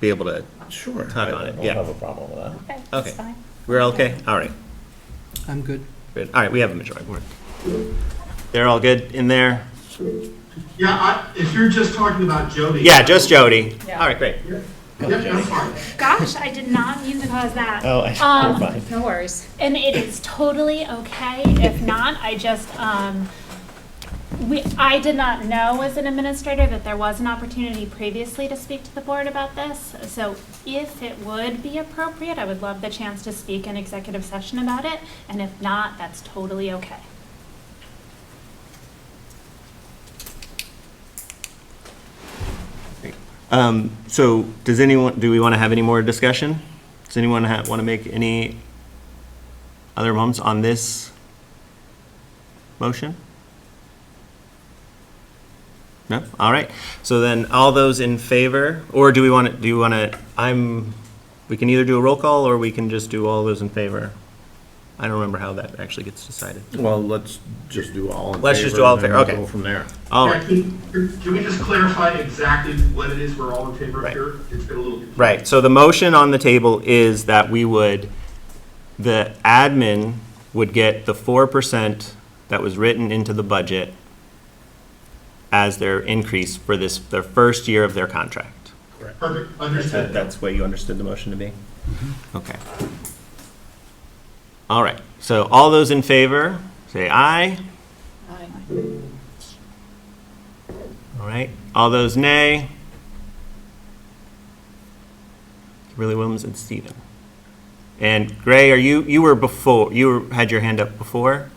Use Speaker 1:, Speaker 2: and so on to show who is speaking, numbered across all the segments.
Speaker 1: be able to,
Speaker 2: Sure.
Speaker 1: Talk on it,
Speaker 2: I
Speaker 1: yeah.
Speaker 2: don't have a problem with that.
Speaker 3: Okay, that's
Speaker 1: okay.
Speaker 3: fine.
Speaker 1: We're okay? All right.
Speaker 4: I'm good.
Speaker 1: Good. All right, we have a majority. We're- They're all good in there?
Speaker 5: Yeah, I, if you're just talking about Jody.
Speaker 1: Yeah, just Jody.
Speaker 3: Yeah.
Speaker 1: All right, great.
Speaker 5: Yep, that's fine.
Speaker 3: Gosh, I did not mean to cause that.
Speaker 2: Oh, I-
Speaker 3: Um,
Speaker 2: you're fine.
Speaker 6: No worries.
Speaker 3: And it is totally okay if not. I just, um, we, I did not know as an administrator that there was an opportunity previously to speak to the board about this. So if it would be appropriate, I would love the chance to speak in executive session about it. And if not, that's totally okay.
Speaker 1: Um, so does anyone, do we want to have any more discussion? Does anyone ha want to make any other moments on this motion? No? All right. So then all those in favor, or do we want to, do you want to, I'm, we can either do a roll call or we can just do all those in favor. I don't remember how that actually gets decided.
Speaker 2: Well, let's just do all in favor.
Speaker 1: Let's just do all in
Speaker 2: and
Speaker 1: favor,
Speaker 2: then we'll
Speaker 1: okay.
Speaker 2: Go from there.
Speaker 1: All
Speaker 5: Yeah,
Speaker 1: right.
Speaker 5: can, can we just clarify exactly what it is we're all in favor of
Speaker 1: Right.
Speaker 5: here? It's been a little confusing.
Speaker 1: Right, so the motion on the table is that we would, the admin would get the four percent that was written into the budget as their increase for this, their first year of their contract.
Speaker 5: Perfect, understood.
Speaker 1: That's what you understood the motion to be? Mm-hmm. Okay. All right, so all those in favor, say aye. All right, all those nay? Kimberly Williams and Stephen. And Gray, are you, you were before, you were- had your hand up before?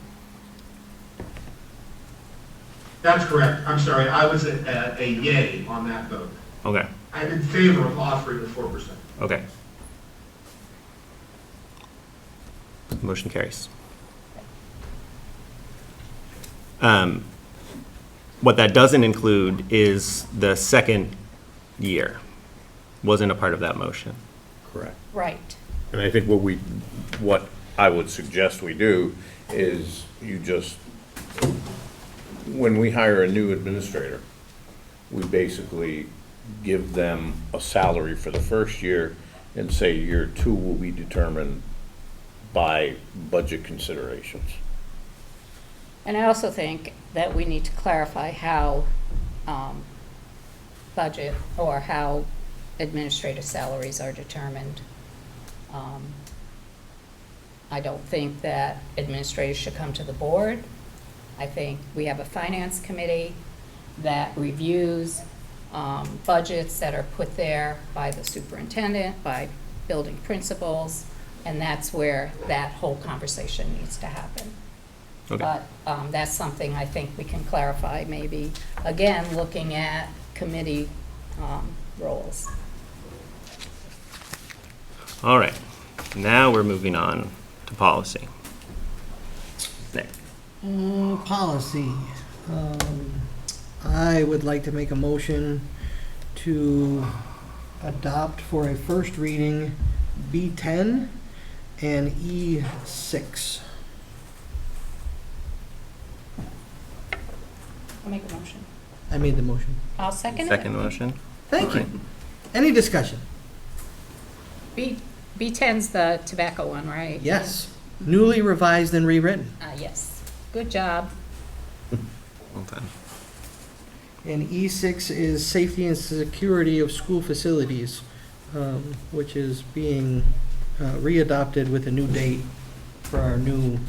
Speaker 5: That's correct. I'm sorry, I was a, a a yay on that vote.
Speaker 1: Okay,
Speaker 5: I'm in favor of offering the four percent.
Speaker 1: okay. Motion carries. Um, What that doesn't include is the second year wasn't a part of that motion.
Speaker 2: Correct.
Speaker 6: Right.
Speaker 2: And I think what we, what I would suggest we do is you just, when we hire a new administrator, we basically give them a salary for the first year and say year two will be determined by budget considerations.
Speaker 6: And I also think that we need to clarify how um, budget or how administrative salaries are determined. Um, I don't think that administrators should come to the board. I think we have a finance committee that reviews um, budgets that are put there by the superintendent, by building principals, and that's where that whole conversation needs to happen.
Speaker 1: Okay.
Speaker 6: But um, that's something I think we can clarify, maybe, again, looking at committee um, roles.
Speaker 1: All right, now we're moving on to policy. Nick,
Speaker 4: Mm, Policy. Um, I would like to make a motion to adopt for a first reading B10 and E E6.
Speaker 6: I'll make a motion.
Speaker 4: I made the motion.
Speaker 6: I'll second it.
Speaker 1: second motion?
Speaker 4: Thank you. Any discussion?
Speaker 6: B, B10's the tobacco one, right?
Speaker 4: Yes. Newly revised and rewritten.
Speaker 6: Uh, yes. Good job.
Speaker 1: Well done.
Speaker 4: And E6 is safety and security of school facilities, um, which is being uh, readopted with a new date for our new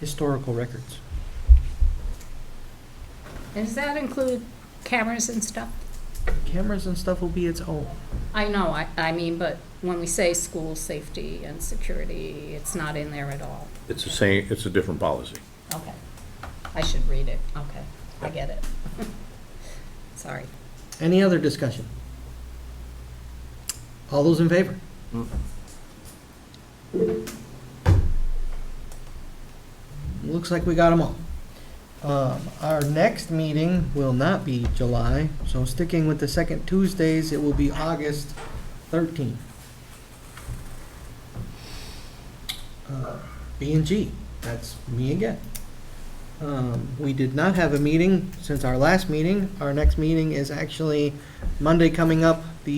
Speaker 4: historical records.
Speaker 6: And Does that include cameras and stuff?
Speaker 4: Cameras and stuff will be its own.
Speaker 6: I know, I, I mean, but when we say school safety and security, it's not in there at all.
Speaker 2: It's the same, it's a different policy.
Speaker 6: Okay. I should read it. Okay. I get it. Sorry.
Speaker 4: Any other discussion? All those in favor? Looks like we got them all. Um, Our next meeting will not be July, so sticking with the second Tuesdays, it will be August 13th. Uh, B and G, that's me again. Um, We did not have a meeting since our last meeting. Our next meeting is actually Monday coming up,